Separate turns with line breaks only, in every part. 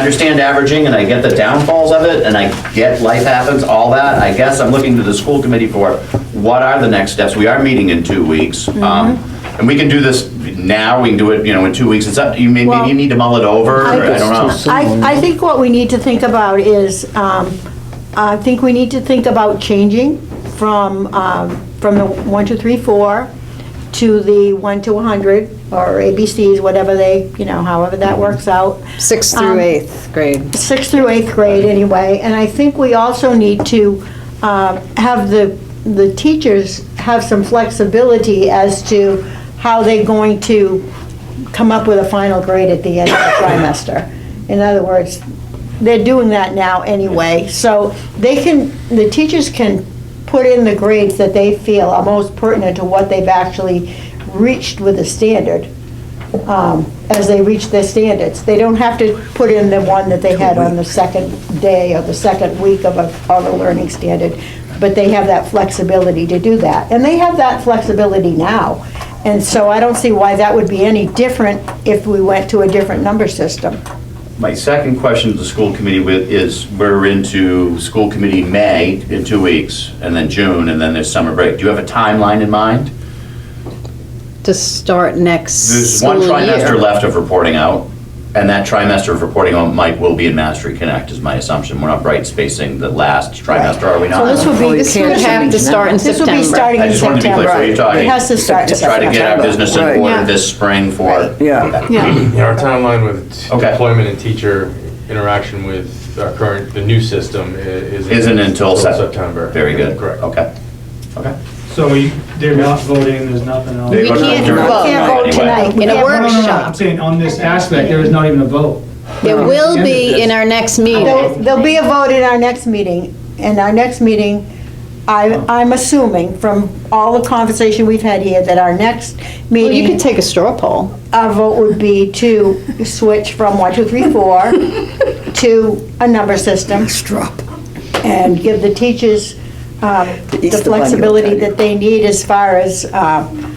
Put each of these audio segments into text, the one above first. understand averaging and I get the downfalls of it and I get life happens, all that. I guess I'm looking to the school committee for what are the next steps? We are meeting in two weeks. Um,
Mm-hmm.
And we can do this now, we can do it, you know, in two weeks. It's up, to you maybe,
Well,
you need to mull it over,
I-
I don't know.
I, I think what we need to think about is, um, I think we need to think about changing from, um, from the one, two, three, four to the one to 100, or ABCs, whatever they, you know, however that works out.
Sixth through
Um,
eighth grade.
sixth through eighth grade anyway, and I think we also need to uh, have the, the teachers have some flexibility as to how they're going to come up with a final grade at the end of the trimester. In other words, they're doing that now anyway, so they can, the teachers can put in the grades that they feel are most pertinent to what they've actually reached with the standard um, as they reach their standards. They don't have to put in the one that they had on the second day or the second week of a, of a learning standard, but they have that flexibility to do that. And they have that flexibility now. And so I don't see why that would be any different if we went to a different number system.
My second question to the school committee with is, we're into school committee May in two weeks, and then June, and then there's summer break. Do you have a timeline in mind?
To start next
There's one
school
trimester
year.
left of reporting out, and that trimester of reporting out might, will be in Mastery Connect, is my assumption. We're not bright spacing the last trimester, are we not?
So this would
Oh,
be.
you
this
can't
would
have
be-
to start in
This would be
September.
starting
I
in
just wanted to be clear,
September.
so you're talking.
It has to start in
Try
September.
to get our business
Right.
in
Yeah.
order this spring for,
Yeah,
Yeah,
Yeah, our timeline with
Okay.
employment and teacher interaction with our current, the new system i- isn't.
isn't until Sep-
September.
Very good.
Correct.
Okay, okay.
So we- they're not voting, there's nothing else?
They
We
vote
can't
during the
vote.
night
Can't vote
anyway.
tonight.
In a
Yeah, no,
No, no, no, no, I'm
workshop.
saying on this aspect, there is not even a vote.
There
At the end
will
of
be
this.
in our next meeting.
There'll there'll be a vote in our next meeting, and our next meeting, I, I'm assuming from all the conversation we've had here, that our next
Well, you could
meeting,
take a straw poll.
our vote would be to switch from one, two, three, four to a number system
drop.
and give the teachers um, the
Easter Bunny will
flexibility
tell you.
that they need as far as um,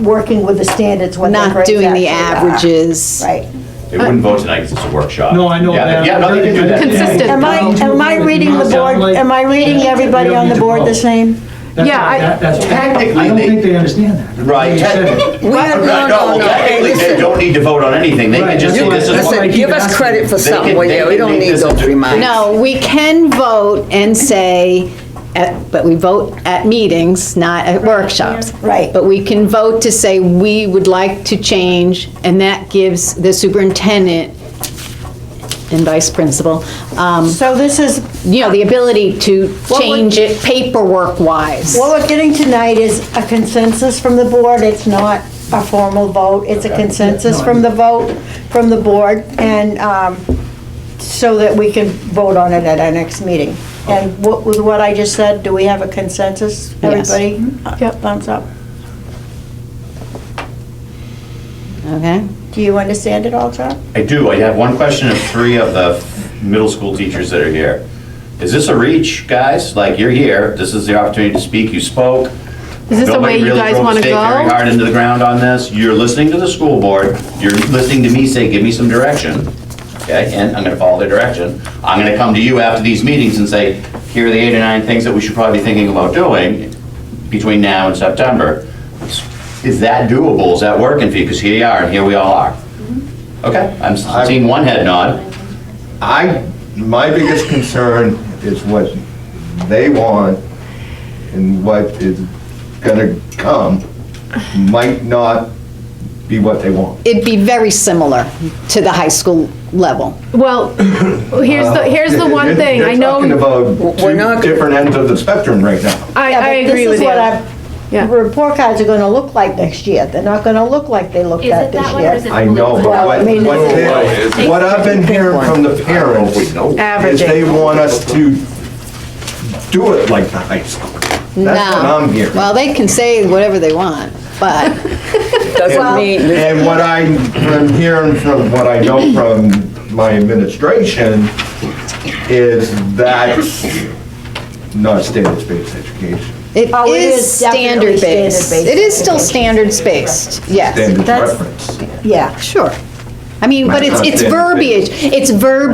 working with the standards, what their
Not
grades
doing
actually
the
are.
averages.
Right.
They
Uh,
wouldn't vote tonight because it's a workshop.
No, I know
Yeah,
that.
Yeah, no, they can do that.
Consistent.
Am I, am I reading the board, am I reading everybody on the board the same?
That's-
Yeah, I-
that- that's-
Technically,
I don't
they-
think they understand that.
Right.
That's
We
have- no, no, no.
Technically, they
Listen.
don't need to vote on anything. They can just say
Right.
this is
That's
what.
it.
Listen, give us credit for
They
something,
can-
will
they
you? We
can
don't
make
need
this
those
into-
reminders.
No, we can vote and say, at- but we vote at meetings, not at workshops.
Right.
But we can vote to say we would like to change, and that gives the superintendent and vice principal, um,
So this is,
you know, the ability to
would-
change it paperwork-wise.
what we're getting tonight is a consensus from the board, it's not a formal vote, it's a consensus from the vote, from the board, and, um, so that we can vote on it at our next meeting. And what, with what I just said, do we have a consensus?
Yes.
Everybody? Mm-hmm. Yep. Thumbs up.
Okay?
Do you understand it all, John?
I do. I have one question of three of the middle school teachers that are here. Is this a reach, guys? Like, you're here, this is the opportunity to speak, you spoke.
Is this the way you guys
Nobody really
wanna
drove a stake very
go?
hard into the ground on this. You're listening to the school board, you're listening to me say, give me some direction, okay? And I'm gonna follow their direction. I'm gonna come to you after these meetings and say, here are the eight or nine things that we should probably be thinking about doing between now and September. Is that doable? Is that working for you? Because here you are, and here we all are.
Mm-hmm.
Okay, I'm s- seeing one head nod.
I, my biggest concern is what they want and what is gonna come might not be what they want.
It'd be very similar to the high school level.
Well, here's the, here's the one
You're-
thing, I know,
You're
We're
talking
not-
about two different ends of the spectrum right now.
I,
Yeah,
I
but
agree with you.
This is
Yeah.
what our report cards are gonna look like next year. They're not gonna look like they looked
Is
at
it
this
that one or is
year.
it?
I know, but
Well, I
what,
mean,
what
it's-
they- what I've been hearing from the parents is
Averaging.
they want us to do it like the high school. That's what
No.
I'm hearing.
Well, they can say whatever they want, but
Doesn't mean,
And what I'm, I'm hearing from, what I know from my administration is that's not standards-based education.
it
Oh, it
is
is definitely
standard-based.
standard-based.
It is still standards-based, yes.
Standards
That's-
reference.
Yeah.
Sure. I mean, but it's, it's verbiage, it's verbiage